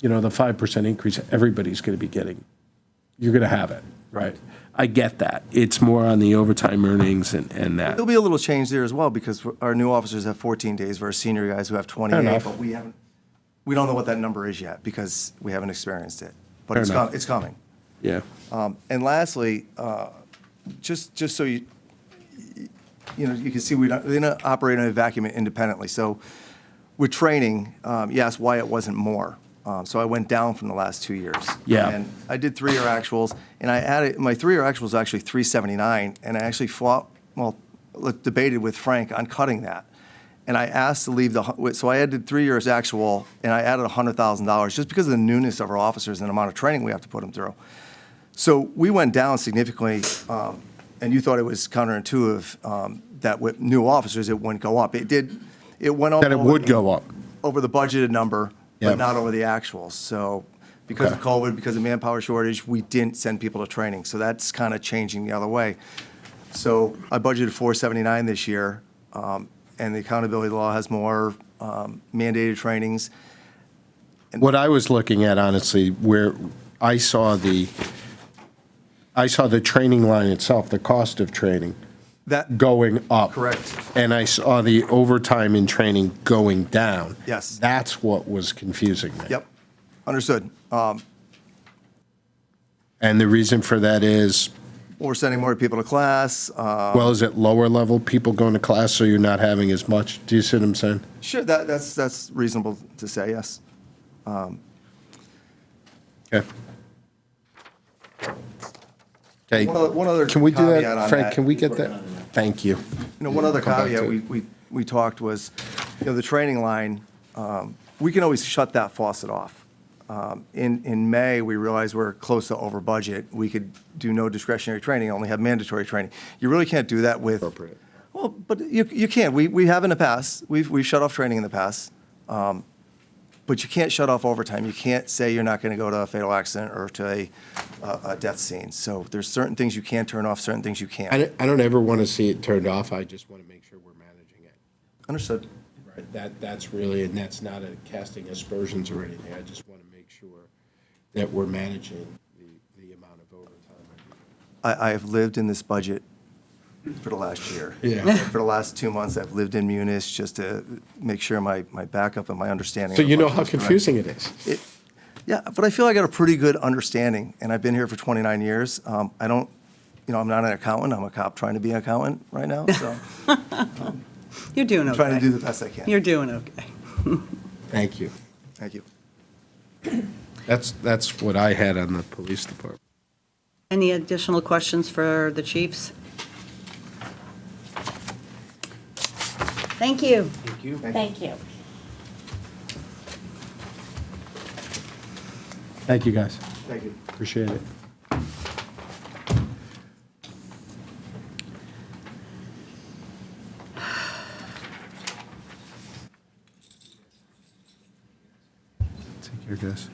you know, the 5% increase everybody's going to be getting. You're going to have it, right? I get that. It's more on the overtime earnings and, and that. There'll be a little change there as well because our new officers have 14 days versus senior guys who have 28, enough. but we haven't, we don't know what that number is yet because we haven't experienced it. But Fair it's, enough. com- it's coming. Yeah. Um, And lastly, uh, just, just so you, you know, you can see we don't, they don't operate in a vacuum independently. So with training, um, you asked why it wasn't more. Um, So I went down from the last two years. Yeah. And I did three-year actuals, and I added, my three-year actual was actually 379, and I actually fought, well, look, debated with Frank on cutting that. And I asked to leave the, hu- so I added three years actual, and I added $100,000 just because of the newness of our officers and the amount of training we have to put them through. So we went down significantly, um, and you thought it was counterintuitive um, that with new officers, it wouldn't go up. It did, it went up. That it would go up. Over the budgeted number, Yeah. but not over the actuals. So because of Okay. COVID, because of manpower shortage, we didn't send people to training. So that's kind of changing the other way. So I budgeted 479 this year, um, and the accountability law has more um, mandated trainings. What I was looking at, honestly, where I saw the, I saw the training line itself, the cost of training, That, going up. Correct. And I saw the overtime in training going down. Yes. That's what was confusing me. yep, understood. Um, And the reason for that is, We're sending more people to class. uh, well, is it lower level people going to class, so you're not having as much? Do you see what I'm saying? Sure, that, that's, that's reasonable to say, yes. Okay. Okay. One other- one other Can we do caveat that, on Frank? that. Can we get that? Thank you. You know, one other Come back to caveat it. we, we, we talked was, you know, the training line, um, we can always shut that faucet off. Um, In, in May, we realized we're close to over budget. We could do no discretionary training, only have mandatory training. You really can't do that with. Appropriate. Well, but you, you can. We, we have in the past. We've, we've shut off training in the past. Um, But you can't shut off overtime. You can't say you're not going to go to a fatal accident or to a, a a death scene. So there's certain things you can turn off, certain things you I can't. don't, I don't ever want to see it turned off. I just want to make sure we're managing it. Understood. Right, that, that's really, and that's not a casting aspersions or anything, I just want to make sure that we're managing the, the amount of overtime. I, I have lived in this budget for the last year. Yeah. For the last two months, I've lived in Munis just to make sure my, my backup and my understanding. So of you the know budget how is correct. confusing it is. It- Yeah, but I feel I got a pretty good understanding, and I've been here for 29 years. Um, I don't, you know, I'm not an accountant, I'm a cop trying to be an accountant right now, so I'm You're doing okay. trying to do the best I can. You're doing okay. Thank you. Thank you. That's, that's what I had on the police department. Any additional questions for the chiefs? Thank you. Thank you. Thank you, guys. Thank you. Appreciate it. Take care, guys.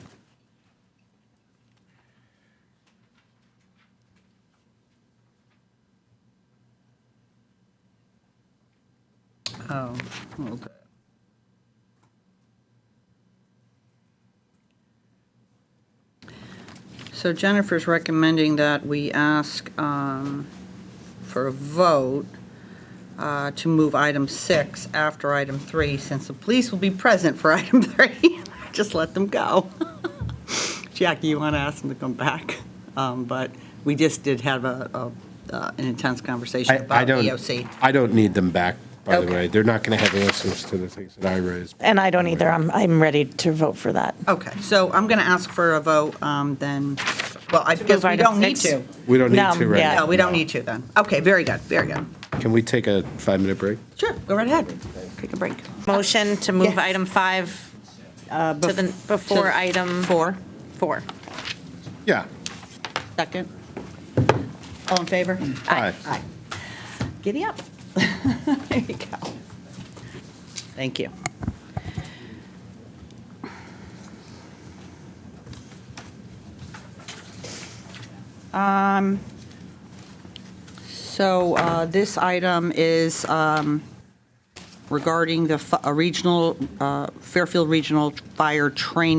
Oh, hold it. So Jennifer's recommending that we ask um, for a vote uh, to move item six after item three, since the police will be present for item three. Just let them go. Jackie, you want to ask them to come back? Um, But we just did have a, a, uh, an intense conversation I, I about E EOC. don't, I don't need them back, by the Okay. way. They're not going to have answers to the things that I raised. And I don't either. I'm, I'm ready to vote for that. Okay, so I'm going to ask for a vote um, then, well, I guess move we item don't need six? to. We don't need No, to, right? yeah. No, we don't need to then. Okay, very good, very good. Can we take a five-minute break? Sure, go right ahead. Take a break. Motion to move Yes. item five uh, to the, before item. Four. Four. Yeah. Second. All in favor? Aye. Aye. Giddy up. There you go. Thank you. Um, So uh, this item is um, regarding the fi- a regional, uh, Fairfield Regional Fire Training